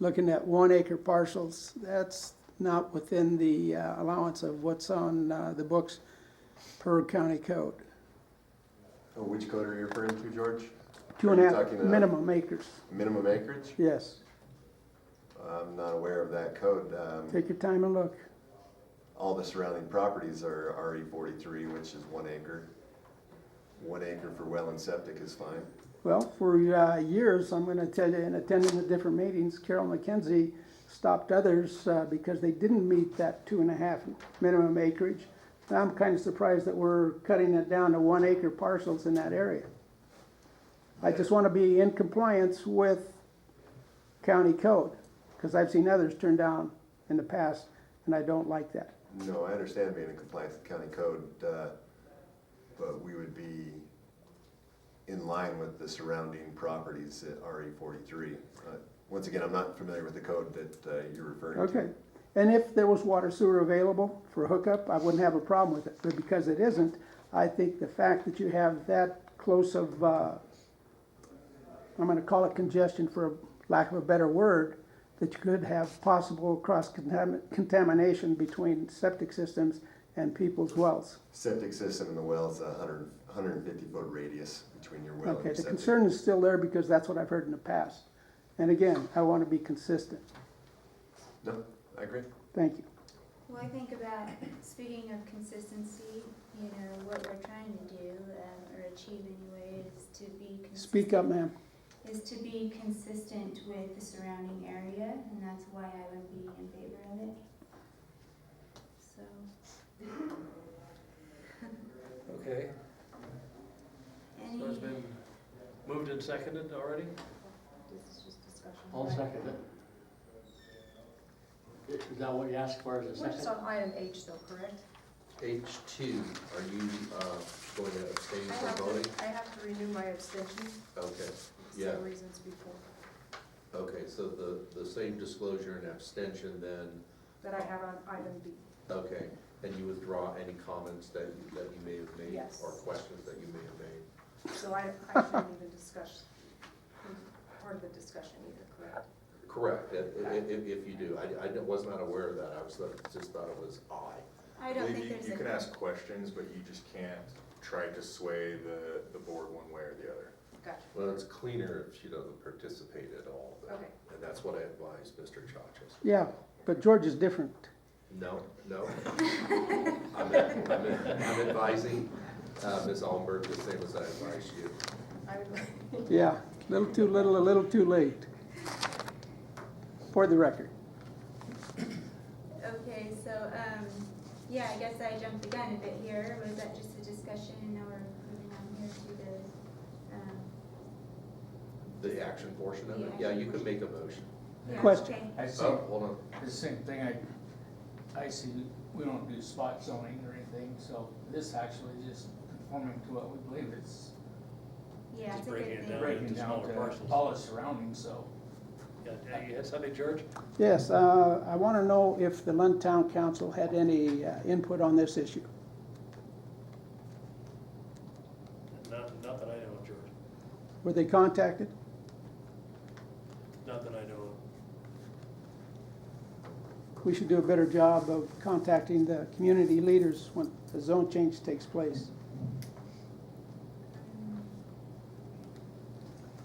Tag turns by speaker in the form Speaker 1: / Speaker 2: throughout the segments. Speaker 1: looking at one acre parcels, that's not within the uh, allowance of what's on uh, the books per county code.
Speaker 2: Oh, Which code are you referring to, George?
Speaker 1: Two and
Speaker 2: Are
Speaker 1: a
Speaker 2: you
Speaker 1: half
Speaker 2: talking about
Speaker 1: minimum acres,
Speaker 2: Minimum acreage?
Speaker 1: yes.
Speaker 2: I'm not aware of that code. Um,
Speaker 1: Take your time and look.
Speaker 2: All the surrounding properties are RE forty-three, which is one acre. One acre for well and septic is fine.
Speaker 1: Well, for uh, years, I'm going to tell you, in attending the different meetings, Carol McKenzie stopped others uh, because they didn't meet that two and a half minimum acreage. Now I'm kind of surprised that we're cutting it down to one acre parcels in that area. I just want to be in compliance with county code, because I've seen others turned down in the past, and I don't like that.
Speaker 2: No, I understand being in compliance with county code, uh, but we would be in line with the surrounding properties at RE forty-three. Uh, Once again, I'm not familiar with the code that uh, you're referring to.
Speaker 1: Okay, and if there was water sewer available for hookup, I wouldn't have a problem with it, but because it isn't, I think the fact that you have that close of, uh, I'm gonna call it congestion for lack of a better word, that you could have possible cross contamination between septic systems and people's wells.
Speaker 2: Septic system and the well is a hundred, hundred and fifty foot radius between your well and
Speaker 1: Okay,
Speaker 2: your
Speaker 1: the
Speaker 2: septic.
Speaker 1: concern is still there because that's what I've heard in the past. And again, I wanna be consistent,
Speaker 2: No, I agree.
Speaker 1: thank you.
Speaker 3: Well, I think about, speaking of consistency, you know, what we're trying to do, um, or achieve anyway, is to be. consistent-
Speaker 1: Speak up, ma'am.
Speaker 3: Is to be consistent with the surrounding area, and that's why I would be in favor of it. So,
Speaker 4: Okay, so
Speaker 3: any,
Speaker 4: it's been moved and seconded already?
Speaker 3: this is just discussion.
Speaker 5: I'll second it. Is that what you asked for, is
Speaker 6: We're
Speaker 5: a
Speaker 6: just
Speaker 5: second?
Speaker 6: on item H though, correct?
Speaker 7: H two, are you, uh, going to abstain
Speaker 6: I have
Speaker 7: from voting?
Speaker 6: to, I have to renew my abstention
Speaker 7: Okay,
Speaker 6: for
Speaker 7: Yeah.
Speaker 6: some reasons before,
Speaker 7: okay, so the, the same disclosure and abstention then,
Speaker 6: that I have on item B.
Speaker 7: okay, and you withdraw any comments that, you- that you may have made?
Speaker 6: Yes.
Speaker 7: Or questions that you may have made?
Speaker 6: So I, I shouldn't even discuss, part of the discussion either, correct?
Speaker 7: Correct, if, if, if you do, I, I was not aware of that, I was, just thought it was I.
Speaker 3: I don't think
Speaker 8: You-
Speaker 3: there's a.
Speaker 8: You can ask questions, but you just can't try to sway the, the board one way or the other.
Speaker 6: Gotcha,
Speaker 7: Well, it's cleaner if she doesn't participate at all, then.
Speaker 6: Okay.
Speaker 7: and that's what I advise Mr. Chachas.
Speaker 1: Yeah, but George is different.
Speaker 7: No, no. I'm, I'm, I'm advising, uh, Ms. Allenberg the same as I advise you.
Speaker 6: I would,
Speaker 1: Yeah, little too little, a little too late. For the record.
Speaker 3: Okay, so, um, yeah, I guess I jumped the gun a bit here, was that just a discussion, and now we're moving on here to the, um,
Speaker 7: The action portion of it,
Speaker 3: Yeah.
Speaker 7: yeah, you can make a motion.
Speaker 3: yeah,
Speaker 1: Question.
Speaker 3: okay.
Speaker 9: I see,
Speaker 7: Oh, hold on,
Speaker 9: the same thing, I, I see, we don't do spot zoning or anything, so this actually is just conforming to what we believe it's
Speaker 3: Yeah, it's a good
Speaker 4: breaking it
Speaker 3: thing.
Speaker 4: down.
Speaker 9: breaking
Speaker 4: to
Speaker 9: down
Speaker 4: smaller
Speaker 9: to
Speaker 4: parcels.
Speaker 9: all the surrounding, so.
Speaker 4: Yeah, uh, you had something, George?
Speaker 1: Yes, uh, I want to know if the Lund Town Council had any uh, input on this issue.
Speaker 4: Not, not that I know of, George.
Speaker 1: Were they contacted?
Speaker 4: Not that I know
Speaker 1: We should do a better job of contacting the community leaders when the zone change takes place.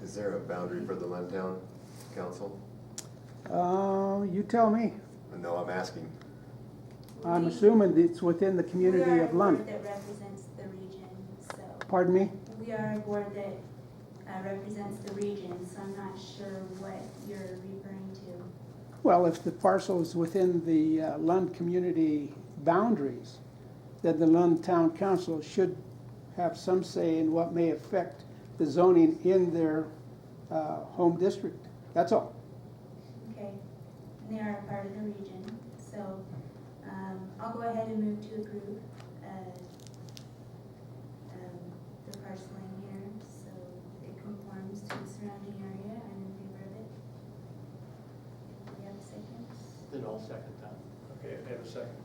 Speaker 2: Is there a boundary for the Lentown Council?
Speaker 1: Uh, You tell me.
Speaker 2: No, I'm asking.
Speaker 1: I'm
Speaker 3: We-
Speaker 1: assuming it's within the community of
Speaker 3: We
Speaker 1: Lund.
Speaker 3: are a board that represents the region, so,
Speaker 1: Pardon me?
Speaker 3: we are a board that uh, represents the region, so I'm not sure what you're referring to.
Speaker 1: Well, if the parcel is within the uh, Lund community boundaries, then the Lund Town Council should have some say in what may affect the zoning in their uh, home district. That's all.
Speaker 3: Okay, and they are a part of the region, so, um, I'll go ahead and move to approve, uh, um, the parceling here, so it conforms to the surrounding area, I'm in favor of it. Do we have a second?
Speaker 5: Then I'll second that.
Speaker 4: of. Okay, I have a second.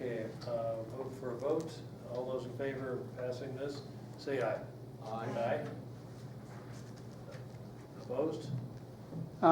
Speaker 4: Okay, uh, vote for a vote. All those in favor of passing this, say aye.
Speaker 5: Aye.
Speaker 4: Aye. Opposed?